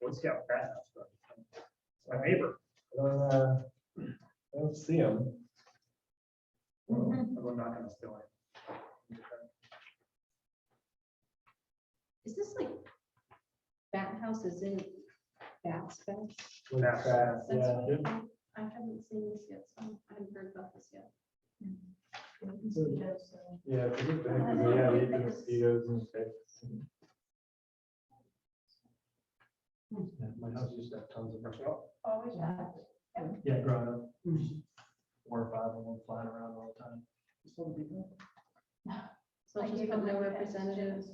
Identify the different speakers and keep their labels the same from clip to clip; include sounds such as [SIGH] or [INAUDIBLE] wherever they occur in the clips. Speaker 1: Boy Scout craft. My neighbor.
Speaker 2: Uh, I don't see him. Mm-hmm.
Speaker 1: I'm not gonna steal it.
Speaker 3: Is this like bat houses in bat specs?
Speaker 2: Really
Speaker 1: That's-
Speaker 2: fast,
Speaker 3: That's
Speaker 2: yeah.
Speaker 3: what I I haven't seen this yet, so I haven't heard about this yet.
Speaker 4: Mm-hmm.
Speaker 2: Yeah, if you look back,
Speaker 3: I
Speaker 2: yeah,
Speaker 3: don't
Speaker 2: you
Speaker 3: think
Speaker 2: can
Speaker 3: it's-
Speaker 2: see those in the face.
Speaker 5: Yeah, my house used to have tons of them.
Speaker 4: Always have.
Speaker 5: Yeah, growing up, four or five of them flying around all the time.
Speaker 3: So I'll just put no representative.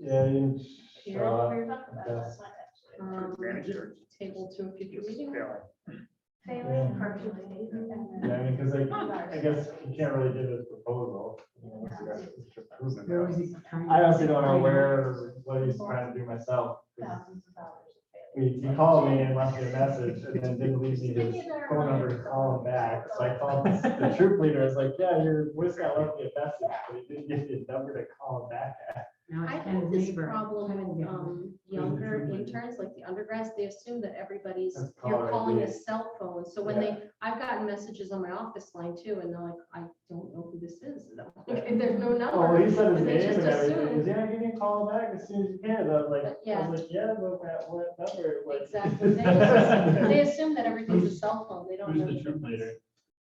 Speaker 2: Yeah, you
Speaker 3: Carol,
Speaker 2: shot.
Speaker 4: We were talking about it last night, actually.
Speaker 3: um,
Speaker 1: Granite church.
Speaker 3: Table to a future
Speaker 1: Just
Speaker 3: meeting.
Speaker 1: failing.
Speaker 4: Failing partially. and
Speaker 2: Yeah,
Speaker 4: then-
Speaker 2: I mean, because I, I guess you can't really give this proposal. you know, once you got it approved. I honestly don't know where, what he's trying to do myself. 'cause
Speaker 4: Thousands of dollars of failing.
Speaker 2: He, he called me and left me a message and then didn't leave me his phone number to call him back. So I called
Speaker 3: [LAUGHS]
Speaker 2: the troop leader. I was like, yeah, your voice guy left me a message, but he didn't give me a number to call him back at.
Speaker 3: I have this problem with um, younger interns, like the undergrads, they assume that everybody's,
Speaker 2: That's
Speaker 3: you're
Speaker 2: caller
Speaker 3: calling a
Speaker 2: ID.
Speaker 3: cell phone. So when they, I've gotten messages on my office line too, and they're like, I don't know who this is. And I'm like, There's no number.
Speaker 2: Oh, well, he said his
Speaker 3: And they
Speaker 2: name
Speaker 3: just
Speaker 2: and everything. He's
Speaker 3: assumed-
Speaker 2: yeah, give me a call back as soon as you can. And I was like,
Speaker 3: But,
Speaker 2: I
Speaker 3: yeah.
Speaker 2: was like, yeah, but at what number? it was."
Speaker 3: Exactly. They
Speaker 2: [LAUGHS]
Speaker 3: assume- they assume that everything's a cell phone. They don't.
Speaker 5: Who's
Speaker 3: know
Speaker 5: the troop
Speaker 3: difference.
Speaker 5: leader?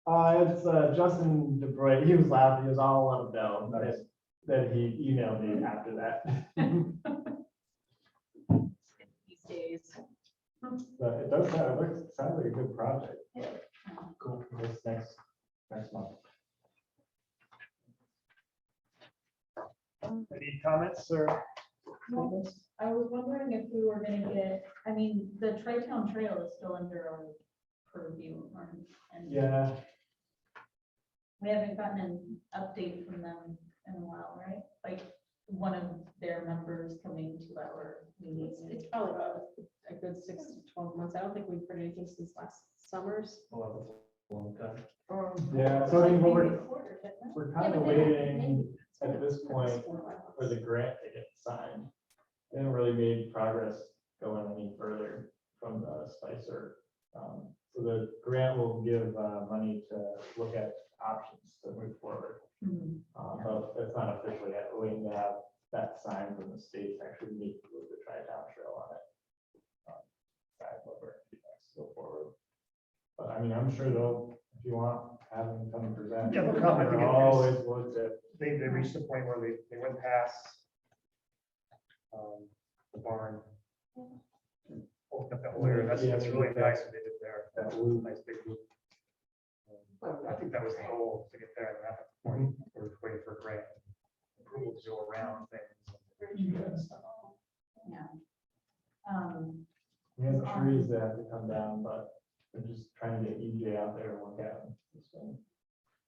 Speaker 2: Uh, it's, uh, Justin DeBrey. He was laughing. He was all out of bell that, that he emailed me after that. [LAUGHS]
Speaker 4: These days.
Speaker 2: But it does sound, it looks, sounds like a good project.
Speaker 4: Yeah.
Speaker 2: Cool. This next, next month.
Speaker 1: Any comments or? comments?
Speaker 4: I was wondering if we were gonna get, I mean, the Tri-Town Trail is still under our purview. um, and
Speaker 2: Yeah,
Speaker 4: We haven't gotten an update from them in a while, right? Like, one of their members coming to our
Speaker 3: It's
Speaker 4: meeting.
Speaker 3: it's probably about a good six to twelve months. I don't think we've heard anything since last summers.
Speaker 5: Well, that's a long time.
Speaker 3: or-
Speaker 2: yeah. So I mean, we're,
Speaker 4: Quarter, didn't it?
Speaker 2: we're
Speaker 3: Yeah,
Speaker 2: kind of
Speaker 3: but they don't-
Speaker 2: waiting at this point
Speaker 3: Four or five months.
Speaker 2: for the grant to get signed. They haven't really made progress going any further from the Spicer. Um, So the grant will give uh, money to look at options to move forward.
Speaker 4: Mhm.
Speaker 2: Uh, But it's not officially yet, We're waiting to have that sign from the state to actually meet with the tri-town trail on it. Um, That's what we're, that's go forward. But I mean, I'm sure they'll, if you want, have them come and present.
Speaker 1: Yeah, they'll come. I think it is.
Speaker 2: Always looks at
Speaker 1: They, they reached the point where they, they went past um, the barn. and Opened up that whole area. That's, that's really nice what they did there.
Speaker 2: that blue
Speaker 1: Nice big loop. Um, I think that was the goal to get there at that point. We We're waiting for grant approval to go around things.
Speaker 4: Um,
Speaker 2: We have trees that have to come down, but we're just trying to get EJ out there and look at them. So-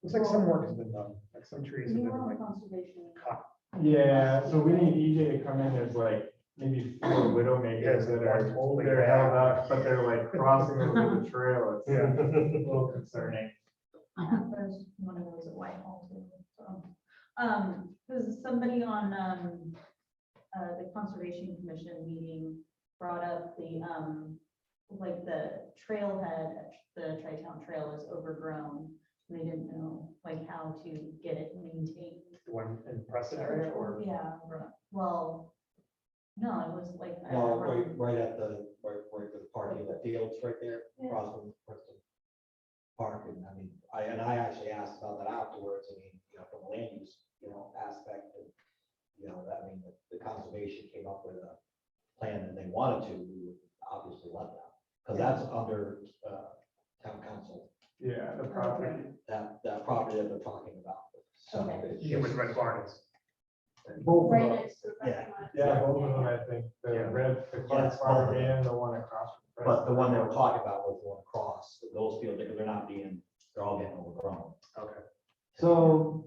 Speaker 1: Looks like some work has been done, like some trees have
Speaker 4: you
Speaker 1: been
Speaker 4: were
Speaker 1: like
Speaker 4: on conservation.
Speaker 1: cut.
Speaker 2: Yeah, so we need EJ to come in, there's like maybe four widow makers that are,
Speaker 1: Holy
Speaker 2: they're held
Speaker 1: cow.
Speaker 2: up, but they're like crossing over the trail. It's a little concerning.
Speaker 4: There's one of those at Whitehall too. so. Um, there's somebody on, um, uh, the Conservation Commission meeting brought up the, um, like the trailhead, at the Tri-Town Trail is overgrown. and They didn't know like how to get it maintained.
Speaker 1: The [LAUGHS] one in Preston area or?
Speaker 4: Yeah, right. well, no, it was like. I
Speaker 5: No,
Speaker 4: don't
Speaker 5: right,
Speaker 4: know.
Speaker 5: right at the, right, right with the parking, the fields right there,
Speaker 4: Yeah.
Speaker 5: across from Bristol Park, and I mean, I, and I actually asked about that afterwards, I mean, you know, from a land use, you know, aspect, and, you know, that, I mean, the- the conservation came up with a plan, and they wanted to, we would obviously let that, because that's under, uh, town council,
Speaker 2: Yeah, the property.
Speaker 5: that, that property that they're talking about, so.
Speaker 4: Okay.
Speaker 5: it's
Speaker 1: Yeah, with
Speaker 5: just-
Speaker 1: red barns.
Speaker 2: Both of
Speaker 4: Right
Speaker 2: them.
Speaker 4: next to the
Speaker 5: Yeah.
Speaker 4: parking lot.
Speaker 2: Yeah, both of them, I think,
Speaker 1: Yeah.
Speaker 2: the red, the
Speaker 5: Yeah.
Speaker 2: Clark farm and the one across. from
Speaker 5: But the one they were
Speaker 2: Preston.
Speaker 5: talking about was the one across, those fields, because they're not being, they're all getting overgrown.
Speaker 1: Okay.
Speaker 2: So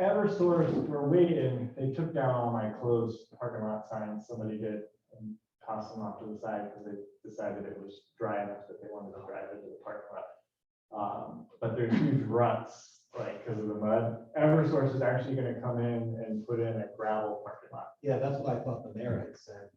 Speaker 2: Eversource, we're waiting, they took down all my closed parking lot signs, somebody did and tossed them off to the side because they decided it was dry enough that they wanted to drive into the parking lot. Um, but they're huge ruts, like, because of the mud. Eversource is actually gonna come in and put in a gravel parking lot.
Speaker 5: Yeah, that's what I thought the mayor had said.